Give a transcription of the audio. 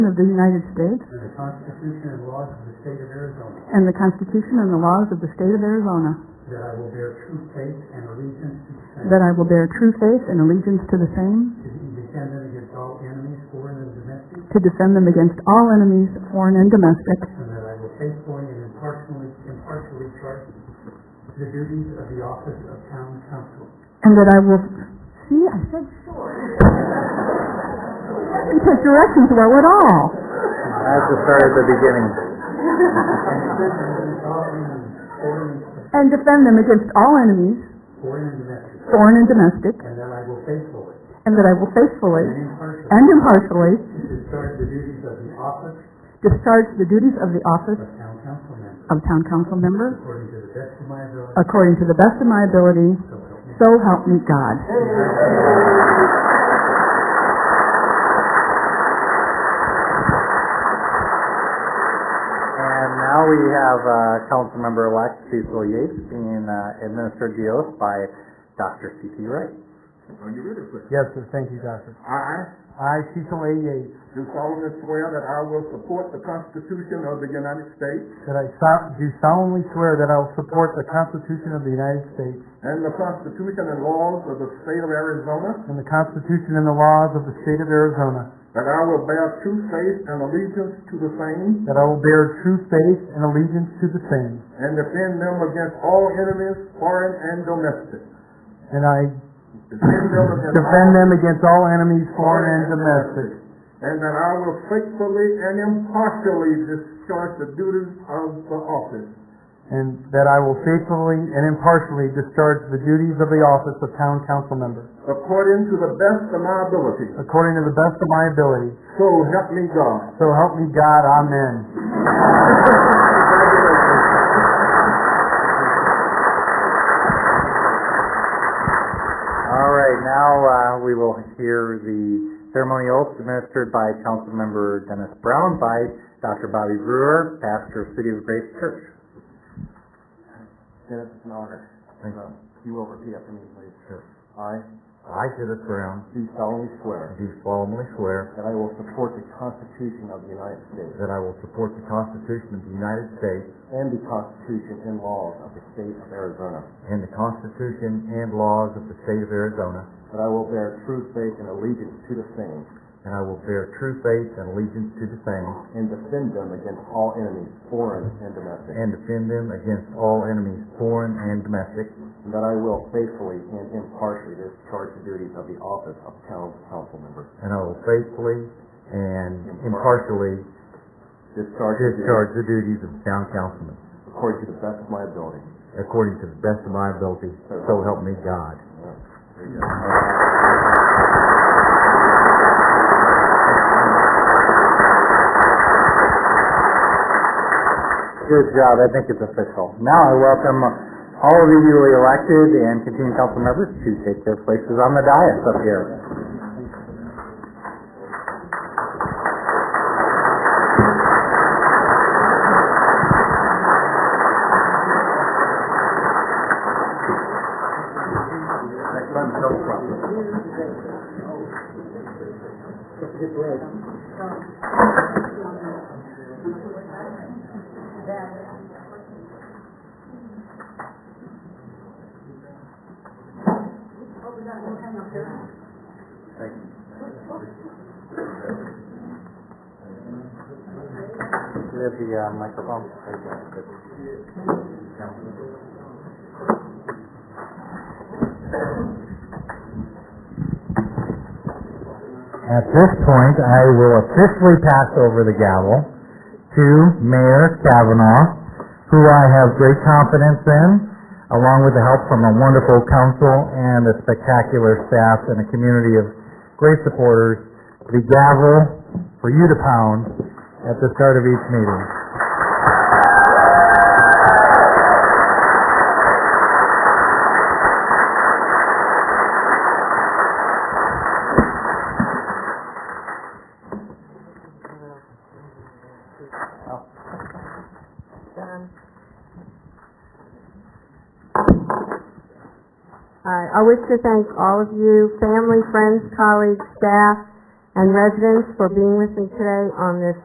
of the United States and the Constitution and laws of the State of Arizona, and the Constitution and the laws of the State of Arizona, that I will bear true faith and allegiance to the same, that I will bear true faith and allegiance to the same, to be defended against all enemies, foreign and domestic, to defend them against all enemies, foreign and domestic, and that I will faithfully and impartially, impartially charge the duties of the office of town council. and that I will, see, I said sure. You took directions well at all. I have to start at the beginning. And defend them against all enemies, foreign And defend them against all enemies, and, foreign and domestic, foreign and domestic, and that I will faithfully and that I will and faithfully impartially and impartially discharge the duties of the office discharge the duties of the office of town council member of town council member according to the best of my ability, according to the best of my ability, so help so help me me God. And now we have uh, Councilmember-elect Cecil Yates being uh, administered the oath by Dr. C.T. Wright. Are you ready, please? Yes, sir, thank you, Doctor. I I, Cecil A. Yates, do solemnly swear that I will support the Constitution of the United States that I so- do solemnly swear that I will support the Constitution of the United States and the Constitution and laws of the State of Arizona, and the Constitution and the laws of the State of Arizona, that I will bear true faith and allegiance to the same that I will bear true faith and allegiance to the same, and defend them against all enemies, foreign and domestic. and I Defend them against defend all- them against all enemies, foreign and domestic, And that I will faithfully and impartially discharge the duties of the office and that I will faithfully and impartially discharge the duties of the office of Town Council Member, according to the best of my ability. according to the best of my ability. So help me God. So help me God, amen. All right, now uh, we will hear the ceremony oath administered by Councilmember Dennis Brown by Dr. Bobby Brewer, pastor of City of Grace Church. Dennis, it's an honor. Thank Uh, You will repeat after me, please. Sure. I I, Dennis Brown, do solemnly swear do solemnly swear that I will support the Constitution of the United States that I will support the Constitution of the United States and the Constitution and laws of the State of Arizona, and the Constitution and laws of the State of Arizona, that I will bear true faith and allegiance to the same and I will bear true faith and allegiance to the same, and defend them against all enemies, foreign and domestic, and defend them against all enemies, foreign and domestic, and that I will faithfully and impartially discharge the duties of the office of town council member, and I will faithfully and impartially discharge the duties discharge the duties of town councilman according to the best of my ability. according to the best of my ability, so help me God. Good job, I think it's official. Now I welcome all of the newly elected and continuing council members to take their places on the dais up here. Do you have the uh, microphone? At this point, I will officially pass over the gavel to Mayor Kavanaugh, who I have great confidence in, along with the help from a wonderful council and a spectacular staff and a community of great supporters, the gavel for you to pound at the start of each meeting. All right, I wish to thank all of you, family, friends, colleagues, staff, and residents for being with me today on this